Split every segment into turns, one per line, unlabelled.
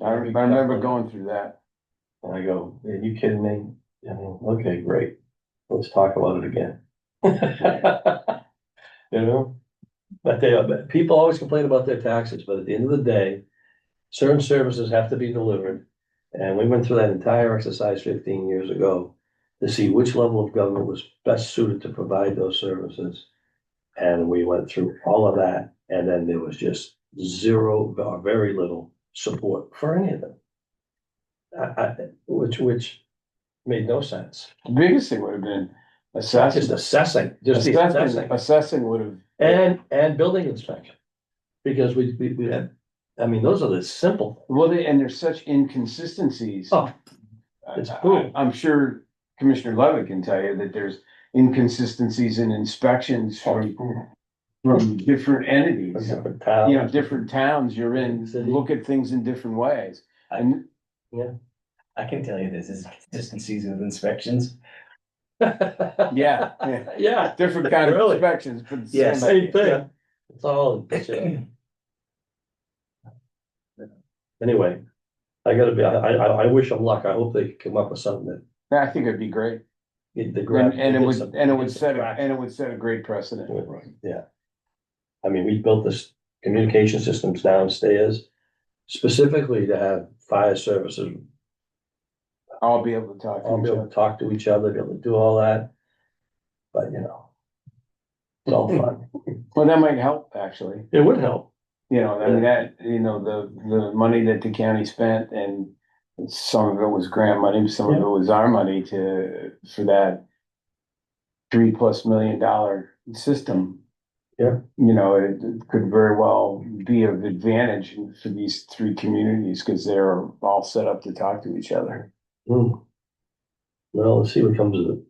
I, I remember going through that.
And I go, are you kidding me? I mean, okay, great. Let's talk about it again. You know? But they, but people always complain about their taxes, but at the end of the day, certain services have to be delivered. And we went through that entire exercise fifteen years ago to see which level of government was best suited to provide those services. And we went through all of that, and then there was just zero, or very little support for any of them. I, I, which, which made no sense.
The biggest thing would have been
Just
assessing,
assessing, just the
assessing,
assessing
assessing would have,
and, and building inspection. Because we, we, we had, I mean, those are the simple,
well, they- and there's such inconsistencies.
Oh,
I-
it's
I-
boom.
I'm sure Commissioner Levitt can tell you that there's inconsistencies in inspections from,
Oh,
from different entities.
different
You know,
towns.
different towns you're in,
City.
look at things in different ways. And
I can tell you this is consistencies with inspections.
yeah, yeah,
Yeah,
different kind of
Really?
inspections. but the
Yeah,
same
same-
thing. It's all, anyway. I gotta be, I, I, I wish them luck. I hope they come up with something that.
I think it'd be great.
get the grab-
And, and it would,
get some-
and it
get
would
some
set, a-
traction.
and it would set a great precedent.
Right, right, Yeah. I mean, we built this communication systems downstairs specifically to have fire services,
I'll be able to talk
all be
to each
able
other.
to talk to each other, be able to do all that. But, you know. It's all fun.
Well, that might help, actually.
It would help.
You know, I mean, that, you know, the, the money that the county spent and some of it was grant money, some of it was our money to, for that three plus million dollar system.
Yeah.
You know, it it could very well be of advantage for these three communities because they're all set up to talk to each other.
Hmm. Well, let's see what comes of it.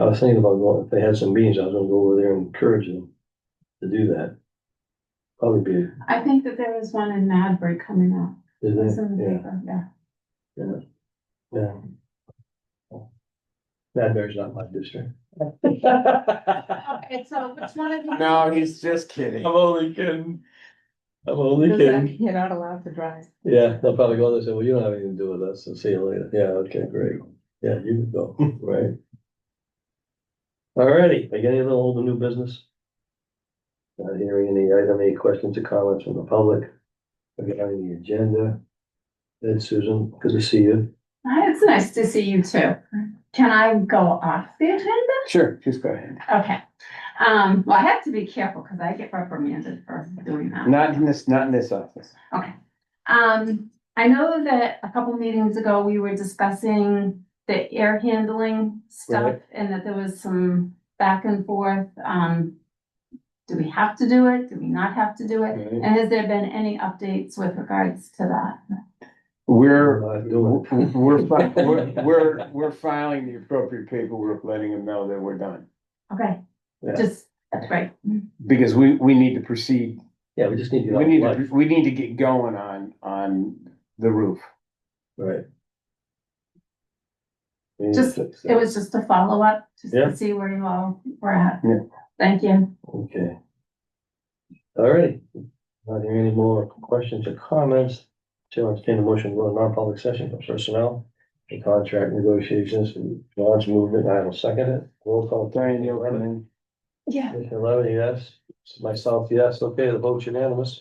I was thinking about, going if they had some meetings, I was gonna go over there and encourage them to do that. Probably be,
I think that there was one in Madbury coming up. It was in
isn't
the
it? Yeah.
paper, yeah.
Yeah. Madbury's not my district.
Okay, so which one of you?
No, he's just kidding.
only kidding. I'm only
Does that mean You're not allowed to drive.
Yeah, they'll probably go there and say, well, you don't have anything to do with us, so see you later. Yeah, okay, great. Yeah, you can go, right? Alrighty, are you any other old or new business? Not hearing any item, any questions or comments from the public? Regarding the agenda? Ed, Susan, good to see you.
Hi, It's nice to see you too. Can I go off the agenda?
Sure, just go ahead.
Okay. Um, well, I have to be careful because I get reprimanded for doing that.
Not in this, not in this office.
Um, I know that a couple meetings ago, we were discussing the air handling stuff
Right.
and that there was some back and forth. Um, do we have to do it? Do we not have to do it?
Right.
And has there been any updates with regards to that?
We're,
Not doing it.
we're, fi- we're, we're, we're filing the appropriate paperwork, letting them know that we're done.
Okay,
Yeah.
just, that's great.
Because we, we need to proceed,
Yeah, we just need to. get
we
off
need,
life.
to we need to get going on, on the roof.
Right. We need to
Just-
fix
It
that.
was just a follow-up, just
Yeah.
to see where you all were at.
Yeah.
Thank you.
Okay. All right, not hearing any more questions or comments, Chair entertain a motion to go to non-public session for personnel and contract negotiations, and John's movement, I will second it, roll call.
Diane, you'll come in.
Yeah.
Commissioner Levin, yes, myself, yes, okay, the vote's unanimous.